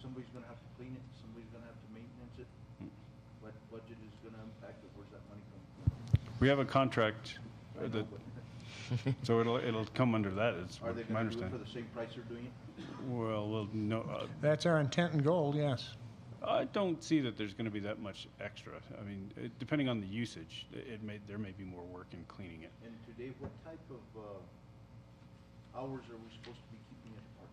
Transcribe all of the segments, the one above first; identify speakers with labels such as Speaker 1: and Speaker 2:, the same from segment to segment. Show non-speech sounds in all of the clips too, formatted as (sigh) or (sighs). Speaker 1: somebody's gonna have to clean it, somebody's gonna have to maintenance it.
Speaker 2: Mm.
Speaker 1: What budget is gonna impact it, where's that money coming from?
Speaker 2: We have a contract,
Speaker 1: I
Speaker 2: uh,
Speaker 1: know,
Speaker 2: that-
Speaker 1: but
Speaker 2: so it'll, it'll come under that, is
Speaker 1: Are they gonna do
Speaker 2: my
Speaker 1: it for
Speaker 2: understanding.
Speaker 1: the same price they're doing it?
Speaker 2: Well, well, no, uh,
Speaker 3: That's our intent and goal, yes.
Speaker 2: I don't see that there's going to be that much extra. I mean, it- depending on the usage, it- it may, there may be more work in cleaning it.
Speaker 1: And today, what type of, uh, hours are we supposed to be keeping at the park?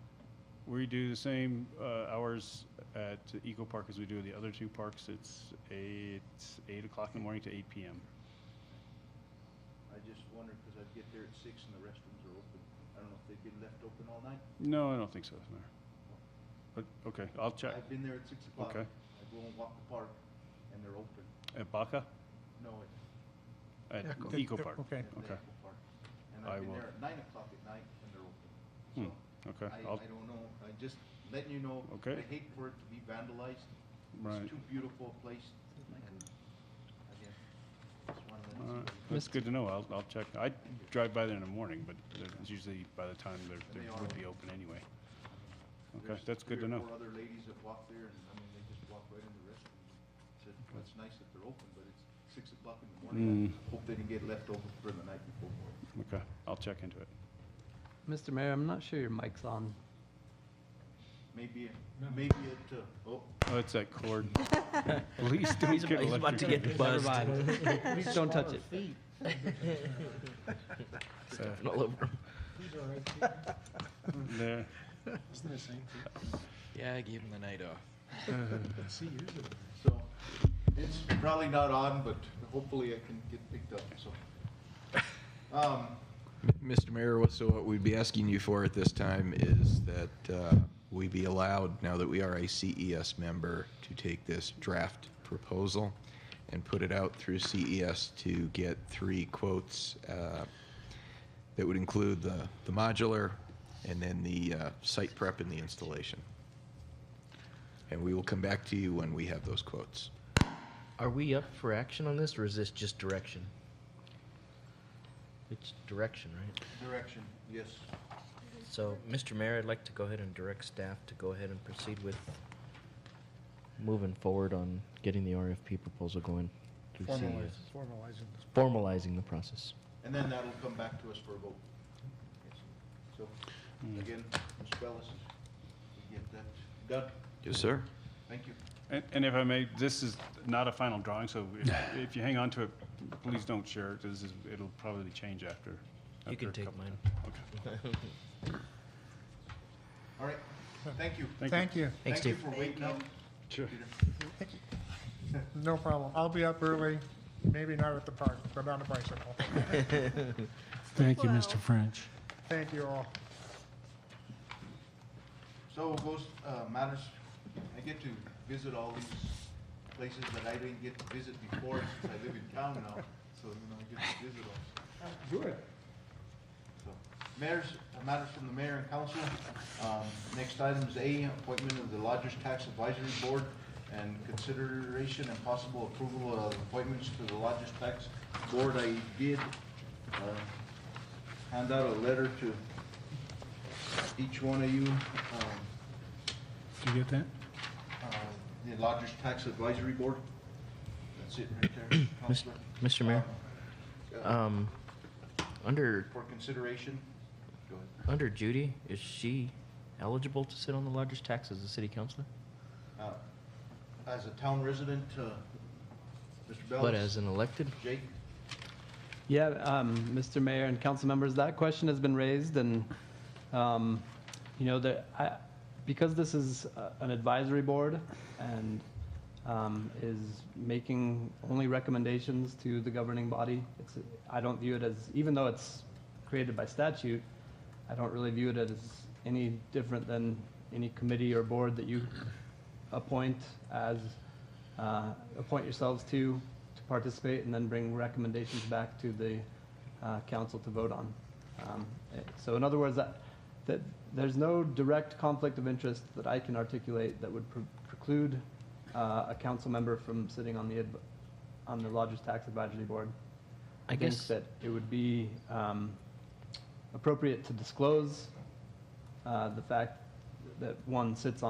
Speaker 2: We do the same uh, hours at Eco Park as we do the other two parks. It's eight, eight o'clock in the morning to eight PM.
Speaker 1: I just wondered, cause I'd get there at six and the restrooms are open. I don't know if they've been left open all night.
Speaker 2: No, I don't think so, no. But, okay, I'll check.
Speaker 1: I've been there at six o'clock.
Speaker 2: Okay.
Speaker 1: I go and walk the park and they're open.
Speaker 2: At Baca?
Speaker 1: No, it's
Speaker 2: At
Speaker 3: Yeah, cool.
Speaker 2: Eco Park?
Speaker 3: Okay.
Speaker 1: at the
Speaker 2: Okay.
Speaker 1: Apple Park. And
Speaker 2: I
Speaker 1: I've been
Speaker 2: will-
Speaker 1: there at nine o'clock at night and they're open. So
Speaker 2: Hmm,
Speaker 1: I,
Speaker 2: Okay, I'll,
Speaker 1: I don't know, I just letting you know. I
Speaker 2: Okay.
Speaker 1: hate for it to be vandalized.
Speaker 2: right.
Speaker 1: It's too beautiful a place and again, just wanted to. let
Speaker 2: All
Speaker 1: everybody
Speaker 2: right,
Speaker 1: know.
Speaker 2: That's good to know. I'll, I'll check. I drive by there in the morning, but they're- it's usually by the time they're,
Speaker 1: They
Speaker 2: they
Speaker 1: are
Speaker 2: would
Speaker 1: open.
Speaker 2: be open anyway. Okay,
Speaker 1: There's
Speaker 2: that's good
Speaker 1: three
Speaker 2: to
Speaker 1: or
Speaker 2: know.
Speaker 1: Four other ladies that walk there and, I mean, they just walk right in the restroom. Said, well, it's nice that they're open, but it's six o'clock in the morning.
Speaker 2: Hmm.
Speaker 1: I Hope they didn't get left over for the night before.
Speaker 2: Okay, I'll check into it.
Speaker 4: Mr. Mayor, I'm not sure your mic's on.
Speaker 1: Maybe, maybe it, uh, oh,
Speaker 2: Oh, it's that
Speaker 5: (laughs)
Speaker 2: cord. Please don't get electrocuted.
Speaker 4: Never mind. Please don't touch it.
Speaker 2: Uh,
Speaker 6: all over him.
Speaker 2: There.
Speaker 6: Yeah, I gave him the night off.
Speaker 1: So it's probably not on, but hopefully I can get picked up,
Speaker 2: (laughs)
Speaker 1: so. Um,
Speaker 6: Mr. Mayor, what- so what we'd be asking you for at this time is that uh, we be allowed, now that we are a CES member, to take this draft proposal and put it out through CES to get three quotes uh, that would include the the modular and then the uh, site prep and the installation. And we will come back to you when we have those quotes.
Speaker 5: Are we up for action on this, or is this just direction? It's direction, right?
Speaker 1: Direction, yes.
Speaker 5: So, Mr. Mayor, I'd like to go ahead and direct staff to go ahead and proceed with moving forward on getting the RFP proposal going. through CES.
Speaker 3: Formalizing.
Speaker 5: Formalizing the process.
Speaker 1: And then that'll come back to us for a vote. Yes. So again, Ms. Bellis, we get that done.
Speaker 6: Yes, sir.
Speaker 1: Thank you.
Speaker 2: And- And if I may, this is not a final drawing, so
Speaker 5: (sighs)
Speaker 2: if- if you hang on to it, please don't share it. This is, it'll probably change after.
Speaker 5: You
Speaker 2: after
Speaker 5: can
Speaker 2: a
Speaker 5: take
Speaker 2: couple-
Speaker 5: mine.
Speaker 2: Okay.
Speaker 1: All right, thank you.
Speaker 3: Thank you.
Speaker 5: Thanks,
Speaker 1: Thank you
Speaker 5: Steve.
Speaker 1: for waiting up.
Speaker 2: Sure.
Speaker 1: Peter.
Speaker 3: No problem. I'll be up early, maybe not at the park, but on a bicycle.
Speaker 7: Thank you, Mr. French.
Speaker 3: Thank you all.
Speaker 1: So goes, uh, matters, I get to visit all these places that I didn't get to visit before since I live in town now. So, you know, I get to visit them.
Speaker 3: Good.
Speaker 1: So, Mayor's, uh, matters from the mayor and council. Um, Next item is A, appointment of the Lodgers Tax Advisory Board and consideration and possible approval of appointments to the Lodgers Tax Board. I did uh, hand out a letter to each one of you, um,
Speaker 7: Did you get that?
Speaker 1: uh, the Lodgers Tax Advisory Board. That's it right there, Counselor. Uh,
Speaker 5: Mr. Mayor, um, under,
Speaker 1: For consideration, go ahead.
Speaker 5: under Judy, is she eligible to sit on the largest tax as a city councilor?
Speaker 1: Uh, As a town resident, uh, Mr. Bellis?
Speaker 5: But as an elected?
Speaker 1: Jake?
Speaker 4: Yeah, um, Mr. Mayor and council members, that question has been raised and, um, you know, there, I, because this is uh, an advisory board and, um, is making only recommendations to the governing body, it's, I don't view it as, even though it's created by statute, I don't really view it as any different than any committee or board that you appoint as, uh, appoint yourselves to, to participate and then bring recommendations back to the uh, council to vote on. Um, eh, So in other words, that, that, there's no direct conflict of interest that I can articulate that would pre- preclude uh, a council member from sitting on the, adv- on the Lodgers Tax Advisory Board.
Speaker 5: I
Speaker 4: think
Speaker 5: guess-
Speaker 4: That it would be um, appropriate to disclose uh, the fact that one sits on